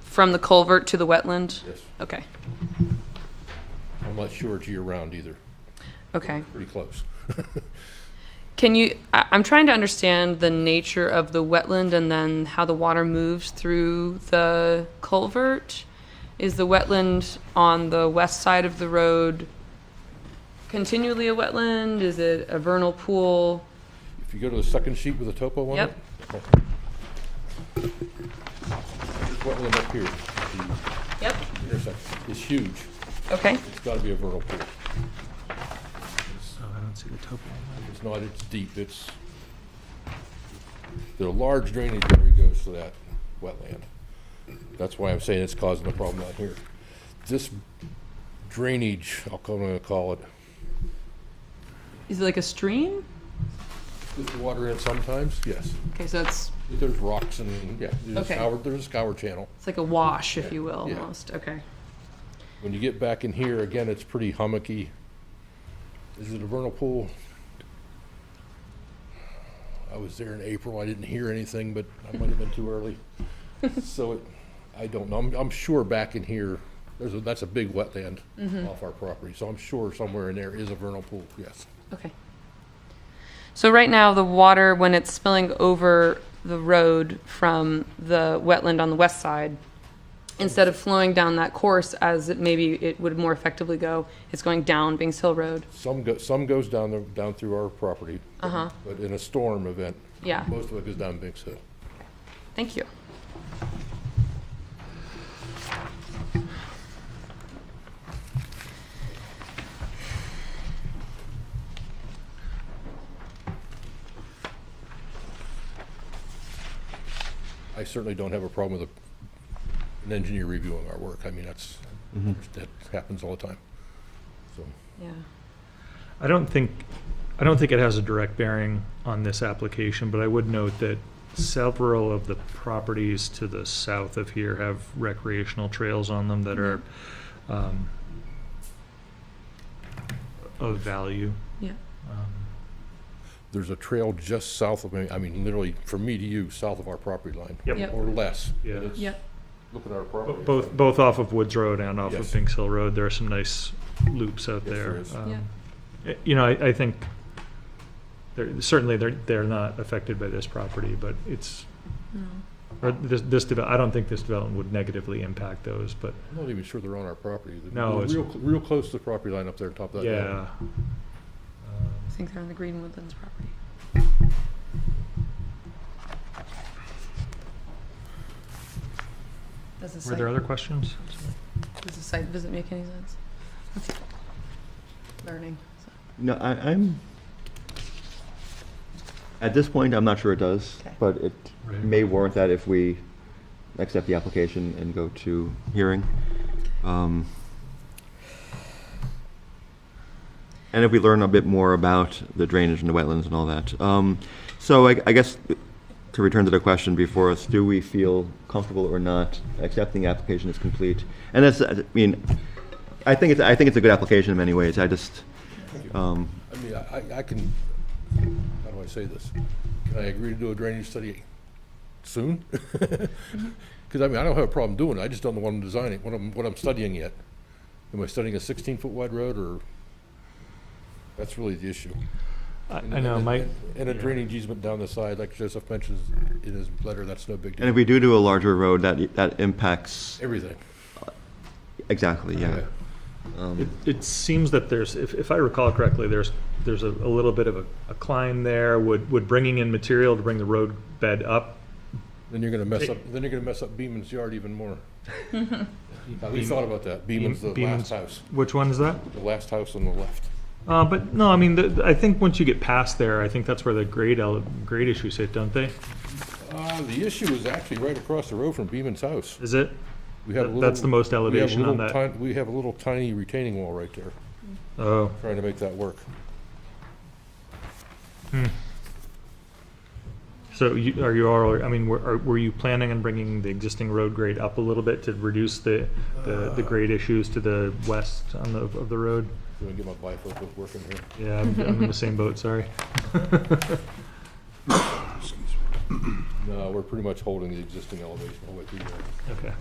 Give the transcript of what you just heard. From the culvert to the wetland? Yes, Okay, I'm not sure it's year-round either, okay. pretty close. Can you, I, I'm trying to understand the nature of the wetland and then how the water moves through the culvert. Is the wetland on the west side of the road continually a wetland? Is it a vernal pool? If you go to the second sheet with the topo on it. Yep. This wetland up here, the Yep. intersection, is huge. Okay, It's gotta be a vernal pool. Oh, I don't see the topo. It's not, it's deep, it's, the large drainage area goes to that wetland. That's why I'm saying it's causing the problem out here. This drainage, I'll call, I'm gonna call it, is it like a stream? there's water in it sometimes, yes. Okay, so it's, There's rocks and, yeah, there's a Okay. scour, there's a scour channel. it's like a wash, if you will, Yeah. almost, okay. When you get back in here, again, it's pretty hummocky. Is it a vernal pool? I was there in April, I didn't hear anything, but I might have been too early. So it, I don't know, I'm, I'm sure back in here, there's a, that's a big wetland Mm-hmm. off our property, so I'm sure somewhere in there is a vernal pool, yes. Okay. So right now, the water, when it's spilling over the road from the wetland on the west side, instead of flowing down that course as it maybe it would more effectively go, it's going down Bings Hill Road. Some go, some goes down the, down through our property. Uh-huh. But in a storm event. Yeah. Most of it goes down Binks Hill. Thank you. I certainly don't have a problem with a- an engineer reviewing our work. I mean, that's, that happens all the time. So, Yeah. I don't think, I don't think it has a direct bearing on this application, but I would note that several of the properties to the south of here have recreational trails on them that are, Mm-hmm. um, of value. Yeah. Um, There's a trail just south of me, I mean, literally from me to you, south of our property line. Yep. Yep. Or less. Yeah. And it's- Yeah. Look at our Bo- property. Both, both off of Woods Road and off of Yes. Binks Hill Road, there are some nice loops out Yes, there there. is. Um, Yeah. y- You know, I, I think, they're, certainly they're, they're not affected by this property, but it's, or this, this, deve- I don't think this development would negatively impact those, but, I'm not even sure they're on our property. They're No, it's- Real, real close to the property line up there on top of that. hill. yeah. Um, I think they're on the Green Woodlands property. Does the Were site, there other questions? does the site visit make any sense? Learning. so. No, I, I'm, at this point, I'm not sure it does, Okay. but it Right. may warrant that if we accept the application and go to hearing. Um, And if we learn a bit more about the drainage and the wetlands and all that. Um, So I, I guess, to return to the question before us, do we feel comfortable or not accepting the application as complete? And that's, I mean, I think it's, I think it's a good application in many ways, I just, um, I mean, I, I- I can, how do I say this? Can I agree to do a drainage study soon? Because I mean, I don't have a problem doing it, I just don't know what I'm designing, what I'm, what I'm studying yet. Am I studying a sixteen-foot wide road, or? That's really the issue. I, I know, Mike, And a drainage easement down the side, like Joseph mentions in his letter, that's no big And deal. if we do do a larger road, that, that impacts, Everything. exactly, yeah. It, it seems that there's, if, if I recall correctly, there's, there's a, a little bit of a, a climb there. Would, would bringing in material to bring the road bed up Then you're gonna mess up, then you're gonna mess up Beaman's yard even more. We thought about that, Beaman's the last Beaman's- house, Which one is that? the last house on the left. Uh, but no, I mean, the, I think once you get past there, I think that's where the grade ele- grade issues hit, don't they? Uh, the issue is actually right across the road from Beaman's house. Is it? We have a That- that's little- the most we have a elevation on little that. tin- We have a little tiny retaining wall right there, Oh, trying to make that work. so you, are you all? I mean, were, are, were you planning on bringing the existing road grade up a little bit to reduce the the, the grade issues to the west on the of the road? Let me get my bifocals working here. Yeah, I'm, I'm in the same boat. Sorry. No, we're pretty much holding the existing elevation all the way through there. Okay.